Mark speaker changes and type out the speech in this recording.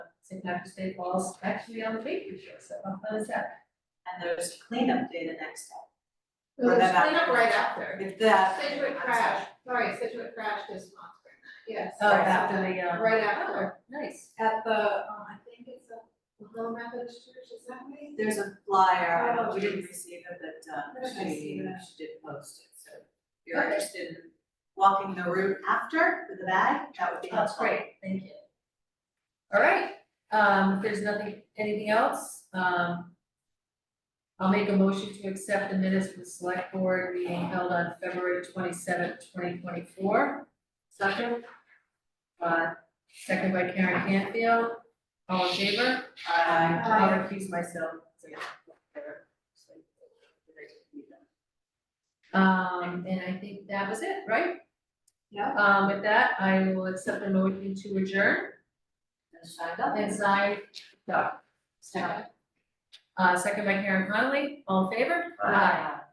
Speaker 1: St. Patrick's Day falls actually on the week this year, so how fun is that?
Speaker 2: And there's cleanup day the next day.
Speaker 3: It was
Speaker 2: Right
Speaker 3: clean
Speaker 2: about-
Speaker 3: up right after.
Speaker 2: If that.
Speaker 3: Situate crash, sorry, Situate crash this month, yes.
Speaker 1: Oh,
Speaker 2: Right
Speaker 1: after the, um,
Speaker 3: Right after,
Speaker 1: nice.
Speaker 3: at the, um, I think it's a Little Methodist Church, is that right?
Speaker 2: There's a flyer,
Speaker 3: Oh,
Speaker 2: we didn't
Speaker 3: geez.
Speaker 2: receive it, but um,
Speaker 3: I didn't
Speaker 2: she,
Speaker 3: see that.
Speaker 2: she did post it, so if you're
Speaker 1: Okay.
Speaker 2: interested in walking the route after with a bag, that would be
Speaker 1: That's
Speaker 2: helpful.
Speaker 1: great, thank you. All right, um, if there's nothing, anything else, um, I'll make a motion to accept the minutes for the select board meeting held on February twenty-seventh, twenty twenty-four. Second. Uh, second by Karen Canfield, all in favor?
Speaker 2: Aye.
Speaker 1: I'll recuse myself. Um, and I think that was it, right?
Speaker 2: Yeah.
Speaker 1: Um, with that, I will accept the motion to adjourn
Speaker 2: And signed up.
Speaker 1: and sign, Doc.
Speaker 2: Second.
Speaker 1: Uh, second by Karen Conley, all in favor?
Speaker 2: Aye.